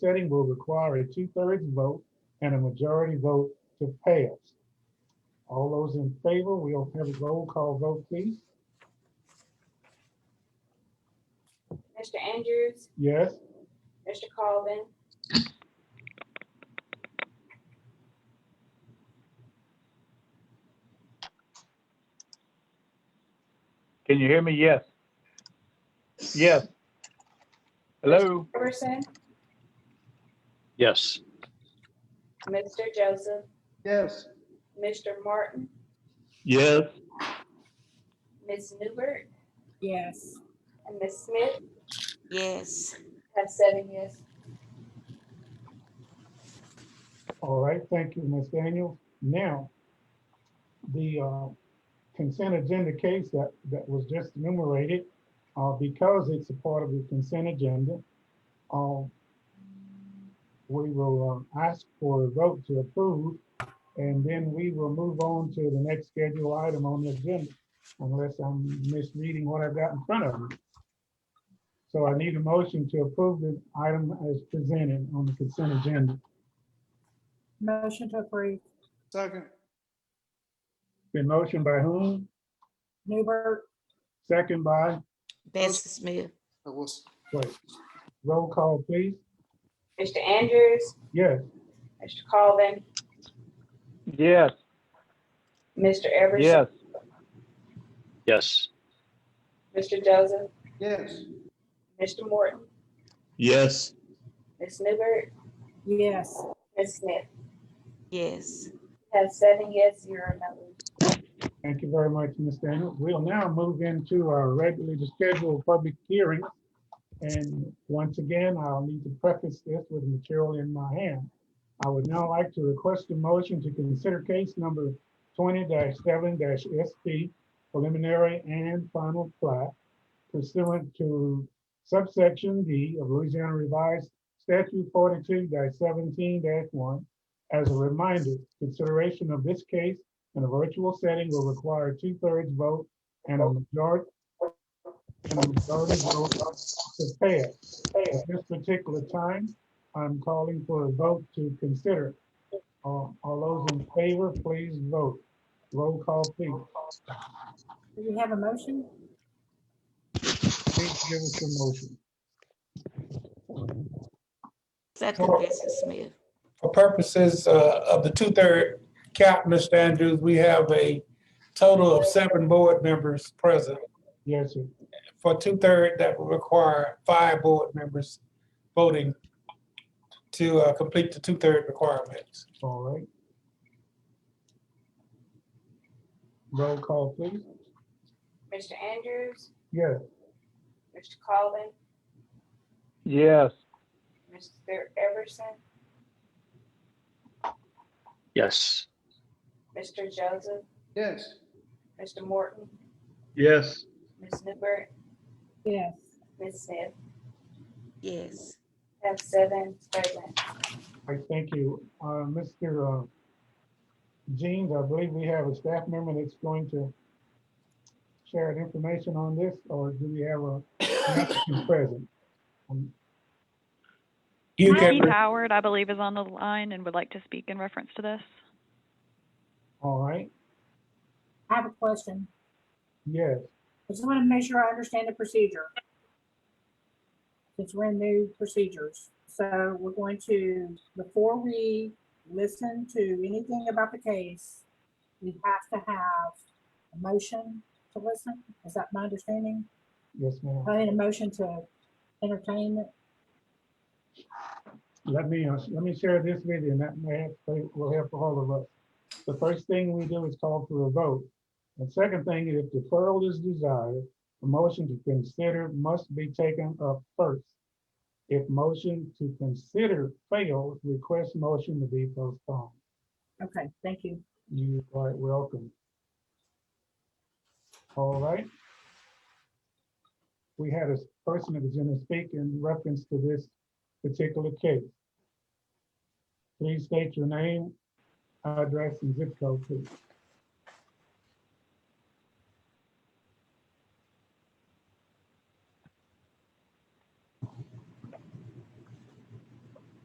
setting will require a two-thirds vote and a majority vote to pass. All those in favor, we'll have a roll call vote, please. Mr. Andrews, Yes, Mr. Colvin. Can you hear me? Yes. Yes. Hello? Person, Yes. Mr. Joseph, Yes. Mr. Martin, Yes. Ms. Newbert, Yes. and Ms. Smith Yes. have seven yes. all right, thank you, Ms. Daniels. Now, the uh, consent agenda case that, that was just enumerated, uh, because it's a part of the consent agenda, um, we will uh, ask for a vote to approve, and then we will move on to the next scheduled item on the agenda, unless I'm misreading what I've got in front of me. So I need a motion to approve the item as presented on the consent agenda. Motion to approve. Second. Been motion by whom? Newbert, Second by, Bessie Smith. That was, wait, roll call, please. Mr. Andrews, Yes, Mr. Colvin, Yes. Mr. Everson, Yes. Yes. Mr. Joseph, yes. Mr. Morton, Yes. Ms. Newbert, yes. Ms. Smith Yes. have seven yes, zero no. thank you very much, Ms. Daniel. We'll now move into our regularly scheduled public hearing. And once again, I'll need to preface this with material in my hand. I would now like to request a motion to consider case number twenty seven SP preliminary and final plat pursuant to subsection D of Louisiana Revised Statute forty-two seventeen one. As a reminder, consideration of this case in a virtual setting will require a two-thirds vote and a majority and a majority vote to pass. At this particular time, I'm calling for a vote to consider. All all those in favor, please vote. Roll call, please. Do we have a motion? Please give us a motion. Second Oh. Bessie Smith. For purposes uh, of the two-third cap, Mr. Andrews, we have a total of seven board members present. Yes, sir. For two-third, that will require five board members voting to uh, complete the two-third requirements. All right. Roll call, please. Mr. Andrews, Yes. Mr. Colvin, Yes. Mr. Everson, Yes. Mr. Joseph, Yes. Mr. Morton, Yes. Ms. Newbert, Yes. Ms. Smith Yes. have seven present. All right, thank you. Uh, Mr. uh, Jeans, I believe we have a staff member that's going to share information on this, or do we have a an applicant present? Um, You Hi, Keith can, Howard, I believe, is on the line and would like to speak in reference to this. All right, I have a question. yes, I just want to make sure I understand the procedure. Since we're in new procedures, so we're going to, before we listen to anything about the case, we have to have a motion to listen. Is that my understanding? yes, ma'am. I need a motion to entertain it. Let me, uh, let me share this with you, and that may help, will help all of us. The first thing we do is call for a vote. The second thing, if deferral is desired, a motion to consider must be taken up first. If motion to consider fails, request motion to be postponed. Okay, thank you. You are quite welcome. All right. We had a person that was going to speak in reference to this particular case. Please state your name, address, and zip code, please.